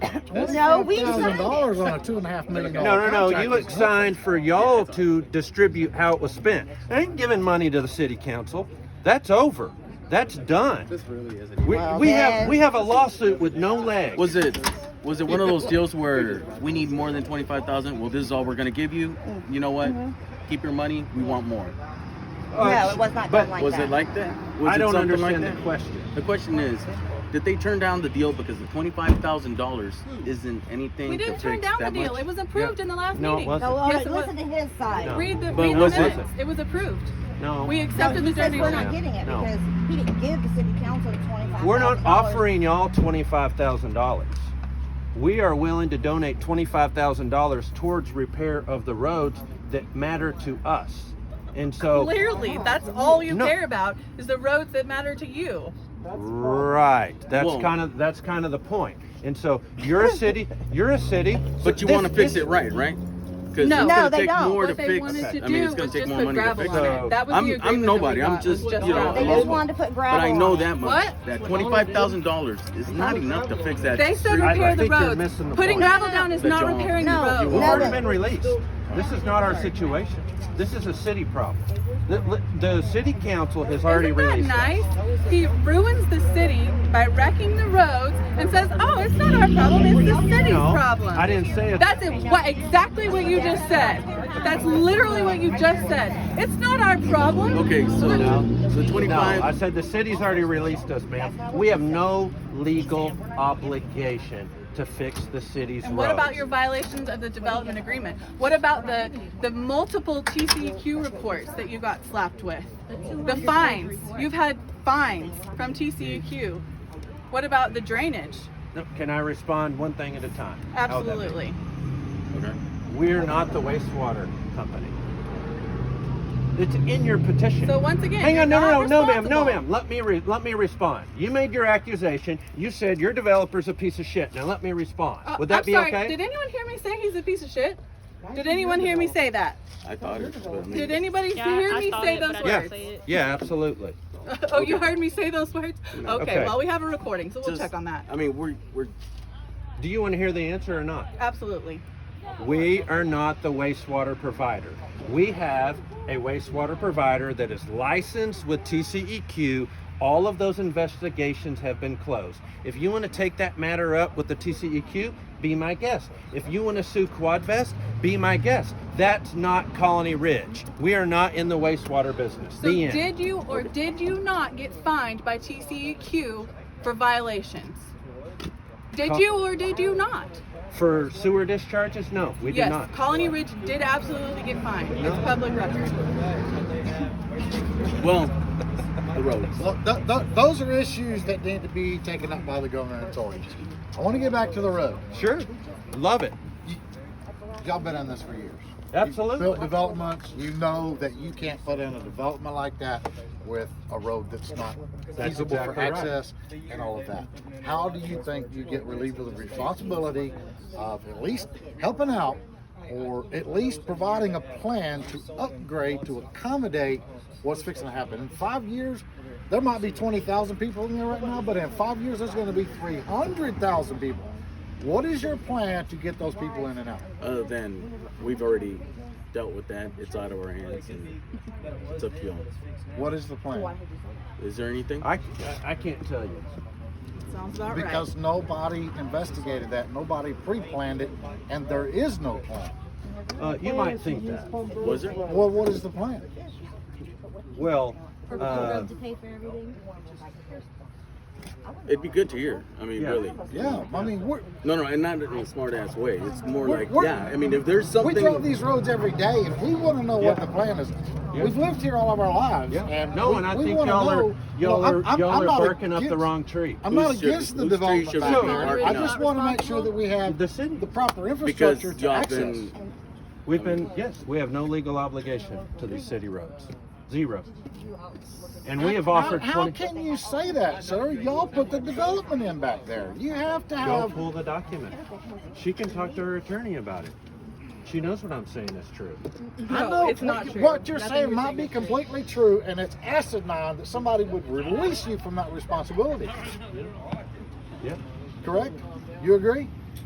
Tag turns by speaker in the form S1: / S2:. S1: No, Oh, we
S2: Thousand dollars
S1: signed
S2: on a two and a half million
S3: No,
S2: dollar
S3: no, no,
S2: contract.
S3: you
S2: is nothing.
S3: signed for y'all to distribute how it was spent. I ain't giving money to the city council. That's over. That's done.
S4: This really isn't.
S3: We,
S4: even-
S3: we have, we have a lawsuit with no legs.
S5: Was it was it one of those deals where we need more than twenty five thousand? Well, this is all we're gonna give you.
S1: Mm.
S5: You know what?
S1: Mm-hmm.
S5: Keep your money. We want more.
S3: Uh,
S1: No, it was not
S3: but
S1: done like
S5: was
S1: that.
S5: it like that? Was
S3: I
S5: it
S3: don't
S5: something like
S3: understand the
S5: that?
S3: question.
S5: The question is, did they turn down the deal because the twenty five thousand dollars
S1: Hmm.
S5: isn't anything?
S6: We
S5: to
S6: didn't turn
S5: fix
S6: down the
S5: that
S6: deal.
S5: much?
S6: It was approved in the last
S3: No, it
S6: meeting.
S3: wasn't.
S1: No, all
S6: Yes,
S1: right,
S6: it was.
S1: listen to his
S3: No.
S1: side.
S6: Read the,
S5: But
S6: read the
S5: was it-
S6: minutes. It was approved.
S3: No.
S6: We
S1: No,
S6: accepted
S1: he
S6: the
S1: says
S6: dirty
S1: we're not
S6: work.
S1: getting it
S3: No.
S1: because he didn't give the city council the twenty-five.
S3: We're not offering y'all twenty-five thousand dollars. We are willing to donate twenty-five thousand dollars towards repair of the roads that matter to us. And so,
S6: Clearly, that's all you
S3: No.
S6: care about is the roads that matter to you.
S3: right, that's
S5: Whoa.
S3: kind of, that's kind of the point. And so, you're a city, you're a city.
S5: But you
S3: this-
S5: want to fix
S3: this-
S5: it right, right? 'Cause
S6: No.
S1: No,
S5: it's gonna
S1: they
S5: take
S1: don't.
S5: more to
S6: What they
S5: fix.
S6: wanted to
S5: I mean, it's
S6: do
S5: gonna
S6: was
S5: take
S6: just
S5: more
S6: put
S5: money to
S6: gravel
S5: fix
S6: on
S5: it.
S6: it. That was
S5: I'm-
S6: the
S5: I'm
S6: agreement that we
S5: nobody. I'm
S6: got,
S5: just,
S6: was
S5: you know,
S1: They
S6: gravel.
S1: just
S5: local.
S1: wanted to put
S5: But
S1: gravel
S5: I know
S1: on it.
S5: that much.
S6: What?
S5: That twenty-five thousand dollars is not enough to fix that.
S6: They said
S5: street.
S3: I- I
S6: repair the
S3: think you're
S6: roads.
S3: missing the
S6: Putting
S3: point.
S6: gravel down is
S5: That
S6: not
S5: y'all-
S6: repairing
S1: No,
S6: the
S1: no,
S3: We've
S6: roads.
S3: already
S1: that-
S3: been released. This is not our situation. This is a city problem. The, the city council has already
S6: Isn't that
S3: released. it.
S6: nice? He ruins the city by wrecking the roads and says, "Oh, it's not our problem; it's the city's
S3: No,
S6: problem."
S3: I didn't say it.
S6: That's it, what, exactly what you just said. That's literally what you just said. It's not our problem.
S5: Okay, so so
S3: No, I
S5: twenty-five.
S3: said the city's already released us, ma'am. We have no legal obligation to fix the city's
S6: And what about
S3: roads.
S6: your violations of the development agreement? What about the, the multiple TCEQ reports that you got slapped with? The fines, you've had fines from TCEQ. What about the drainage?
S3: No, Can I respond one thing at a time? How would that be?
S6: Absolutely.
S5: Okay.
S3: We're not the wastewater company. It's in your petition.
S6: So once again,
S3: Hang
S6: you're
S3: on, no, no,
S6: not
S3: no, no, ma'am, no,
S6: responsible.
S3: ma'am. Let me re- let me respond. You made your accusation. You said your developer's a piece of shit. Now let me respond.
S6: Uh,
S3: Would that
S6: I'm
S3: be
S6: sorry,
S3: okay?
S6: Did anyone hear me say he's a piece of shit? Did anyone hear me say that?
S5: I thought it. but I mean-
S6: Did anybody
S7: Yeah,
S6: hear
S7: I
S6: me
S7: thought
S6: say
S7: it,
S6: those
S7: but I didn't
S6: words?
S7: say it.
S3: yeah, absolutely.
S6: oh, you heard me say those words? Okay,
S3: Okay. uh,
S6: well, we have a recording, so we'll
S5: Just-
S6: check on that.
S5: I mean, we're we're
S3: Do you want to hear the answer or not?
S6: Absolutely.
S3: We are not the wastewater provider. We have a wastewater provider that is licensed with TCEQ. All of those investigations have been closed. If you want to take that matter up with the TCEQ, be my guest. If you want to sue Quadvest, be my guest. That's not Colony Ridge. We are not in the wastewater business.
S6: So,
S3: the end.
S6: did you or did you not get fined by TCEQ for violations? Did
S3: Co-
S6: you or did you not?
S3: For sewer discharges? No, we
S6: yes,
S3: did not.
S6: Colony Ridge did absolutely get fined. It's public record.
S5: well, the roads.
S2: Look, th- th- those are issues that need to be taken up by the governmental agency. I want to get back to the road.
S3: Sure. Love it.
S2: Y'all been on this for years.
S3: Absolutely.
S2: Built developments, you know that you can't put in a development like that with a road that's not
S3: That's
S2: feasible for
S3: exactly right.
S2: access and all of that. How do you think you get relieved of the responsibility of at least helping out or at least providing a plan to upgrade to accommodate what's fixing to happen? In five years, there might be 20,000 people in there right now, but in five years, there's going to be 300,000 people. What is your plan to get those people in and out?
S5: Other than we've already dealt with that. It's out of our hands, and it's up to y'all.
S2: What is the plan?
S5: Is there anything?
S3: I, I can't tell you.
S6: Sounds about right.
S2: Because nobody investigated that, nobody pre-planned it, and there is no plan.
S3: Uh, you might think that.
S5: Was there?
S2: Well, what is the plan?
S3: Well, uh,
S7: road to pay for everything.
S5: It'd be good to hear. I mean,
S3: Yeah.
S5: really.
S2: Yeah, I mean, we're,
S5: No, no, and not in a smart ass way. It's more
S2: We're-
S5: like,
S2: we're-
S5: yeah. I mean, if there's
S2: we
S5: something.
S2: drive these roads every day, and we want to know what
S3: Yeah.
S2: the plan is.
S3: Yeah.
S2: We've lived here all of our lives,
S3: yeah.
S2: and
S3: no,
S2: we-
S3: and I
S2: we
S3: think
S2: wanna
S3: y'all
S2: know-
S3: are
S2: you
S3: y'all
S2: know,
S3: are
S2: I'm- I'm-
S3: y'all
S2: I'm
S3: are
S2: not
S3: barking up the
S2: against-
S3: wrong tree.
S2: I'm
S5: Whose
S2: not
S5: street-
S2: against the
S5: whose
S2: development
S5: street should
S2: back
S3: we be
S2: here.
S5: marking
S2: I
S5: out?
S2: just want to make sure that we have
S3: The city.
S2: the proper
S5: because
S2: infrastructure to
S5: y'all
S2: access.
S5: been
S3: We've been yes, we have no legal obligation to these city roads, zero. And we have
S2: How,
S3: offered
S2: how
S3: twenty.
S2: can you say that, sir? Y'all put the development in back there. You have to
S3: Go
S2: have
S3: pull the document. She can talk to her attorney about it. She knows what I'm saying is true.
S2: I
S6: No,
S2: know
S6: it's not
S2: what-
S6: true.
S2: What you're
S6: Nothing
S2: saying
S6: you're
S2: might
S6: saying
S2: be
S6: is true.
S2: completely true, and it's asinine that somebody would release you from that responsibility.
S3: Yeah.
S2: Correct? You agree?